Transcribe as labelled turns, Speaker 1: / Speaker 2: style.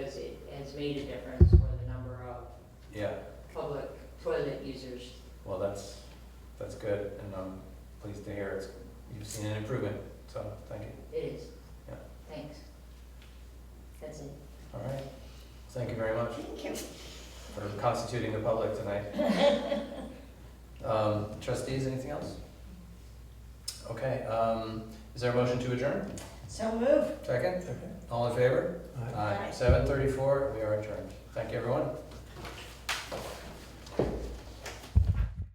Speaker 1: it's made a difference for the number of
Speaker 2: Yeah,
Speaker 1: public toilet users.
Speaker 2: well, that's, that's good, and I'm pleased to hear it's, you've seen an improvement, so, thank you.
Speaker 1: It is.
Speaker 2: Yeah.
Speaker 1: Thanks. That's it.
Speaker 2: All right, thank you very much
Speaker 3: Thank you.
Speaker 2: for constituting the public tonight. Um, Trustees, anything else? Okay, um, is there a motion to adjourn?
Speaker 3: So move.
Speaker 2: Second? All in favor?
Speaker 3: Aye.
Speaker 2: Seven thirty-four, we are adjourned. Thank you, everyone.